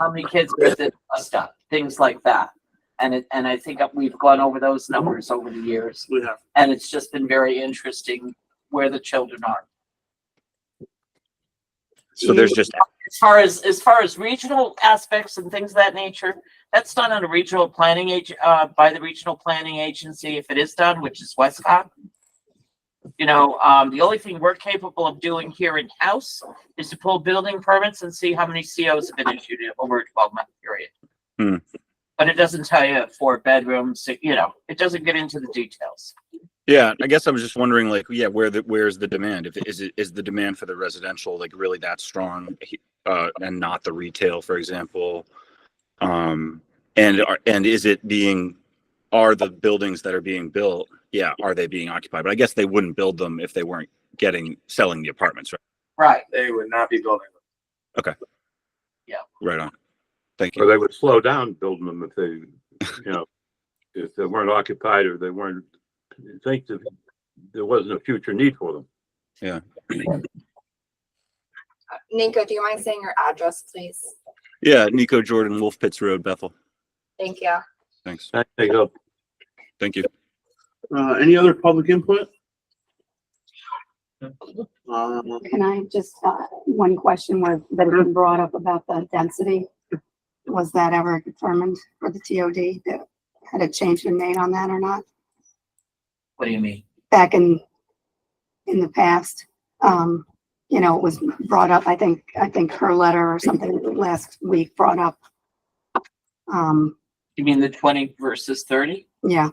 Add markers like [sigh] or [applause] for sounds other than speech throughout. how many kids was it bust up, things like that. And it, and I think we've gone over those numbers over the years, We have, and it's just been very interesting where the children are. So there's just, As far as, as far as regional aspects and things of that nature, that's done on a regional planning age, uh, by the regional planning agency, if it is done, which is Westcott. You know, um, the only thing we're capable of doing here in-house is to pull building permits and see how many COs have been issued over a twelve-month period. Hmm. But it doesn't tell you four bedrooms, you know, it doesn't get into the details. yeah, I guess I was just wondering like, yeah, where the, where's the demand? If, is it, is the demand for the residential like really that strong? Uh, and not the retail, for example? Um, and are, and is it being, are the buildings that are being built, yeah, are they being occupied? But I guess they wouldn't build them if they weren't getting, selling the apartments, right? Right. they would not be building. Right on. Thank Or you. they would slow down building them if they, you know, [laughs] if they weren't occupied or they weren't, think that there wasn't a future need for them. Ninko, do you mind saying your address, please? Yeah, Nico Jordan, Wolf Pits Road, Bethel. Thank you. Thanks. I think of Thank you. Uh, any other public input? Um, Can I just, uh, one question where, that had been brought up about the density? Was that ever determined for the TOD? that- Had a change been made on that or not? What do you mean? Back in, in the past, um, you know, it was brought up, I think, I think her letter or something last week brought up. Um, You mean the twenty versus thirty? yeah,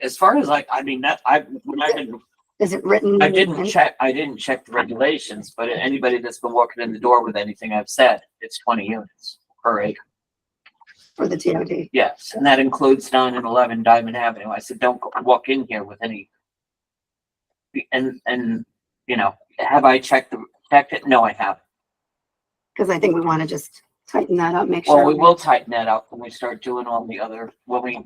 As far as I, I mean, that, I, when I've been is it written? I didn't in- check, I didn't check the regulations, but anybody that's been walking in the door with anything I've said, it's twenty units per acre. For the TOD? Yes, and that includes nine and eleven Diamond Avenue. I said, don't go- walk in here with any. And, and, you know, have I checked the, checked it? No, I haven't. Cause I think we want to just tighten that up, make sure. Well, we will tighten that up when we start doing all the other, when we,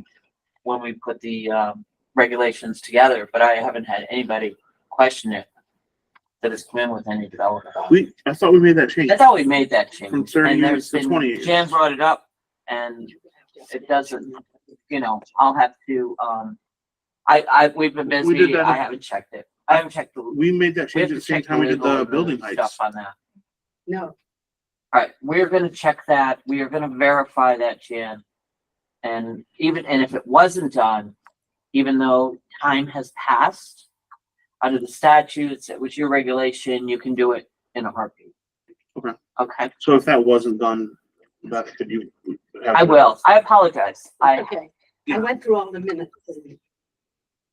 when we put the, um, regulations together, but I haven't had anybody question it. That has come in with any development. on it. we, I thought we made that change. I thought we made that change. From 30 and there's years to been- 20 years. Jan brought it up and it doesn't, you know, I'll have to, um, I, I, we've been We did busy. that. I haven't checked it. I haven't checked the. we We made that have change at to the same check time we did legal the building stuff heights. On that. No, All right, we're gonna check that. We are gonna verify that, Jan. And even, and if it wasn't done, even though time has passed, under the statutes, it was your regulation, you can do it in a heartbeat. Okay. Okay, So if that wasn't done, Beth, could you? I will. I apologize. I, Okay, Yeah. I went through all the minutes. and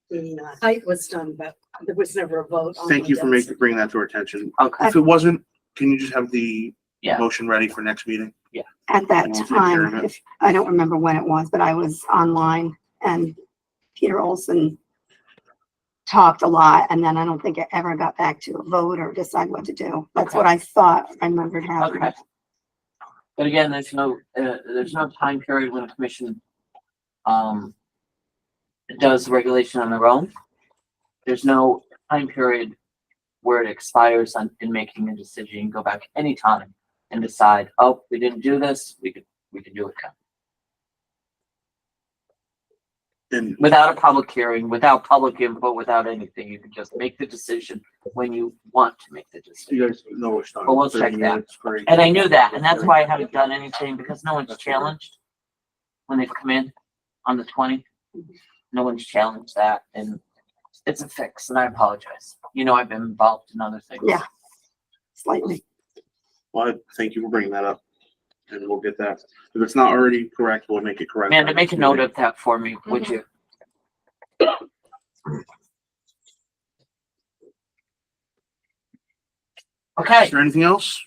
The uh, height was done, but there was never a vote. on Thank the you for density. making, bringing that to our attention. okay. If it wasn't, can you just have the Yeah. motion ready for next meeting? At that And we'll take care of time, it. if, I don't remember when it was, but I was online and Peter Olson talked a lot and then I don't think it ever got back to a vote or decide what to do. That's what I thought I remembered happening. Okay. But again, there's no, uh, there's no time period when a commission, um, does the regulation on their own. There's no time period where it expires on, in making a decision. You can go back anytime and decide, oh, we didn't do this, we could, we could do it now. And Without a public hearing, without public input, without anything, you can just make the decision when you want to make the decision. you guys know it's done. Well, we'll check 30 that. minutes, great. And I knew that, and that's why I haven't done anything, because no one's challenged when they've come in on the twenty. No one's challenged that, and it's a fix, and I apologize. You know, I've been involved in other things. Yeah. Slightly. Well, I thank you for bringing that up. And we'll get that. If it's not already correct, we'll make it correct. Amanda, make a note of that for me, would you? Okay. Is there anything else?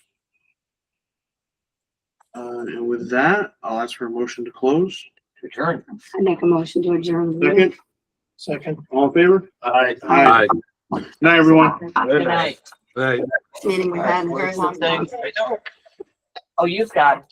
Uh, and with that, I'll ask for a motion to close. Adjourn. I make a motion to adjourn. the meeting. Second, Second. all in favor? Aye. Aye. Aye. Good night, everyone. Good night. Aye. Meeting we had in a very long time. Oh, you've got